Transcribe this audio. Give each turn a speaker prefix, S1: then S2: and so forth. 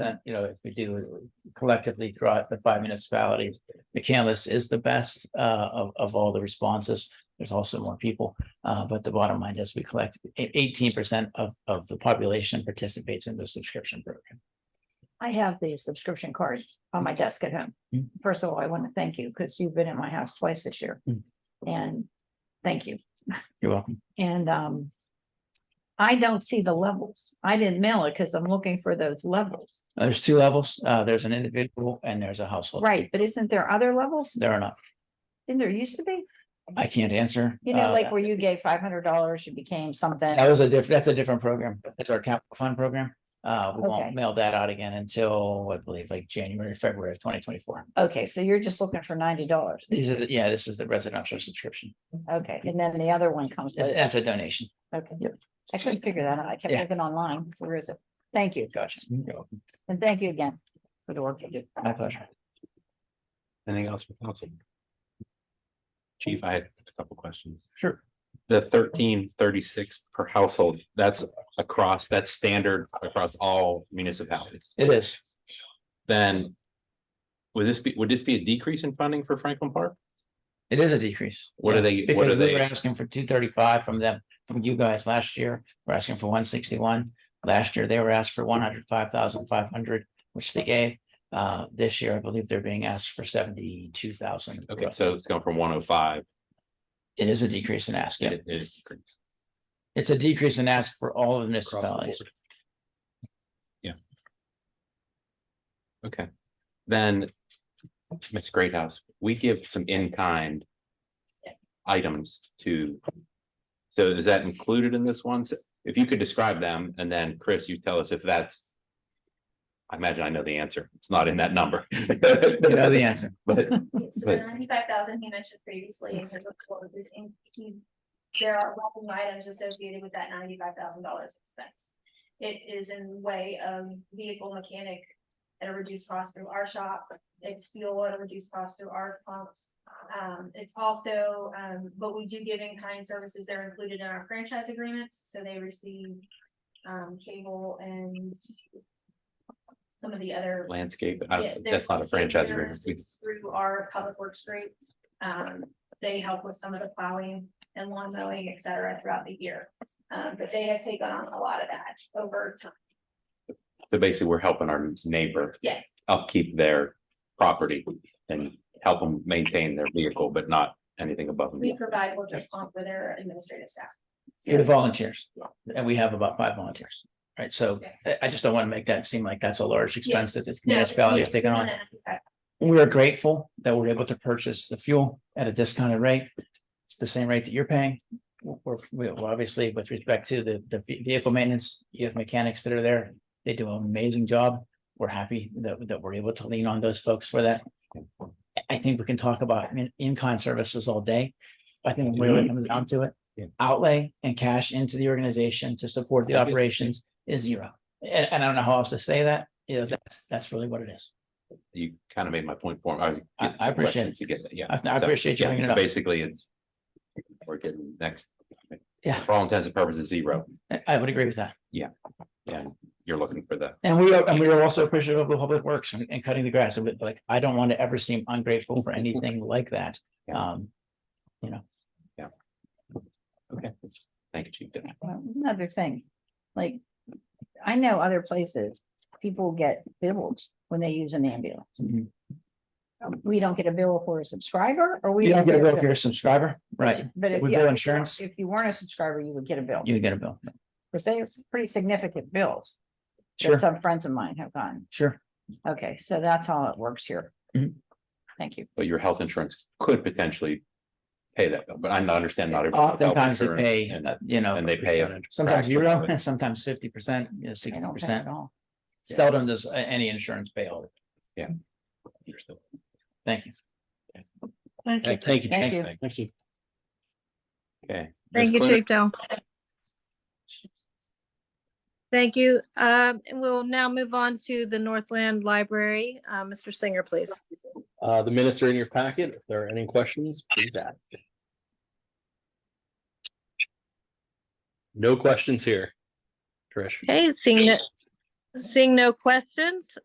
S1: percent, you know, if we do collectively throughout the five municipalities. McCandless is the best uh of of all the responses. There's also more people, uh but the bottom line is we collect e-, eighteen percent of of the population participates in the subscription program.
S2: I have the subscription card on my desk at home.
S1: Mm.
S2: First of all, I want to thank you because you've been in my house twice this year.
S1: Mm.
S2: And thank you.
S1: You're welcome.
S2: And um. I don't see the levels. I didn't mail it because I'm looking for those levels.
S1: Uh, There's two levels. Uh there's an individual and there's a household.
S2: Right, but isn't there other levels?
S1: There are not.
S2: Didn't there used to be?
S1: I can't answer.
S2: You know,
S1: uh,
S2: like where you gave five hundred dollars, you became something.
S1: That was a different, that's a different program. That's our capital fund program. Uh, we
S2: Okay.
S1: won't mail that out again until, I believe, like January, February of twenty twenty-four.
S2: Okay, so you're just looking for ninety dollars.
S1: These are, the- yeah, this is the residential subscription.
S2: Okay, and then the other one comes. with-
S1: That's a donation.
S2: Okay,
S1: Yep.
S2: I couldn't figure that out. I kept
S1: Yeah.
S2: looking online. Where is it? Thank you.
S1: Gotcha.
S2: And thank you again for the work you do.
S1: My pleasure.
S3: Anything else for council? Chief, I had a couple questions.
S1: Sure.
S3: The thirteen thirty-six per household, that's across, that's standard across all municipalities.
S1: It is.
S3: Then would this be, would this be a decrease in funding for Franklin Park?
S1: It is a decrease.
S3: What are
S1: Yeah,
S3: they- what
S1: because
S3: are
S1: we
S3: they-
S1: We're asking for two thirty-five from them, from you guys last year. We're asking for one sixty-one. Last year, they were asked for one hundred five thousand five hundred, which they gave. Uh, this year, I believe they're being asked for seventy-two thousand.
S3: Okay, so it's going from one oh five,
S1: It is a decrease in ask. yeah.
S3: it it is. decreased
S1: It's a decrease in ask for all of the
S3: across the
S1: municipalities.
S3: board. Yeah. Okay, then, Ms. Greathouse, we give some in-kind items to, so is that included in this one? So If you could describe them, and then Chris, you tell us if that's, I imagine I know the answer, it's not in that number.
S1: You know the answer.
S3: But,
S4: So
S3: But-
S4: the ninety-five thousand he mentioned previously is in the quote, is in, he, there are revenue items associated with that ninety-five thousand dollars expense. It is in way of vehicle mechanic at a reduced cost through our shop, it's fuel at a reduced cost through our pumps. Um, it's also, um, but we do give in-kind services, they're included in our franchise agreements, so they receive um, cable and some of the other
S3: landscape, I-
S4: yeah, they're
S3: that's not a
S4: public
S3: franchise agreement,
S4: services
S3: We-
S4: Through our public works group, um, they help with some of the plowing and lawn mowing, et cetera, throughout the year. Um, but they have taken on a lot of that over time,
S3: so basically, we're helping our neighbor
S4: yes,
S3: upkeep their property and help them maintain their vehicle, but not anything above and
S4: we
S3: beyond.
S4: provide workers' comp for their administrative staff.
S1: You're the volunteers,
S4: Yeah.
S1: and we have about five volunteers, right? So I, I just don't want to make that seem like that's a large expense that this municipality is taking on.
S4: uh,
S1: We're grateful that we're able to purchase the fuel at a discounted rate. It's the same rate that you're paying. We're, we obviously with respect to the, the ve- vehicle maintenance, you have mechanics that are there. They do an amazing job. We're happy that, that we're able to lean on those folks for that. I- I think we can talk about in, in-kind services all day. I think when it comes down to it,
S3: Yeah.
S1: outlay and cash into the organization to support the
S3: Yeah, yeah.
S1: operations is zero. And, and I don't know how else to say that. You know, that's, that's really what it is.
S3: You kind of made my point for me. I was.
S1: I- I appreciate it.
S3: To get that, yeah.
S1: I I
S3: So,
S1: appreciate you
S3: yeah,
S1: bringing
S3: so
S1: it up.
S3: Basically, it's. We're getting next.
S1: Yeah.
S3: For all intents and purposes, zero.
S1: I- I would agree with that.
S3: And you're looking for the,
S1: And we are, and we are also appreciative of the public works and, and cutting the grass. And like, I don't want to ever seem ungrateful for anything like that.
S3: Yeah.
S1: Um,
S3: okay. Thank you, Chief. Deputy.
S2: Well, Another thing, like, I know other places, people get bills when they use an ambulance.
S1: you
S2: We don't get a bill for a subscriber or we.
S1: don't get a bill if
S2: for
S1: you're a subscriber, right?
S2: But if.
S1: We
S2: yeah,
S1: bill insurance.
S2: If you weren't a subscriber, you would get a bill,
S1: You get a bill.
S2: because they're pretty significant bills. that
S1: Sure,
S2: Some friends of mine have gotten.
S1: sure.
S2: Okay, so that's how it works here.
S1: Mhm.
S2: Thank you.
S3: But your health insurance could potentially. Pay that, bill, but I understand not. everyone's health
S1: Oftentimes they
S3: insurance
S1: pay,
S3: and-
S1: uh, you know.
S3: and they pay a
S1: Sometimes
S3: fraction
S1: zero,
S3: of it.
S1: sometimes fifty percent, you know,
S2: I
S1: sixty
S2: don't pay
S1: percent.
S2: at all.
S1: Seldom does a- any insurance pay all. of it. Thank you.
S2: Thank you.
S3: Thank you.
S2: Thank you.
S3: Thank you. Okay. Ms.
S5: Thank you,
S3: Clerk?
S5: Chief Dell. Thank you. Um, and we'll now move on to the Northland Library. Uh, Mr. Singer, please.
S6: Uh, the minutes are in your packet. If there are any questions, please ask. No questions here. Trish,
S5: Okay, seeing no, Seeing no questions,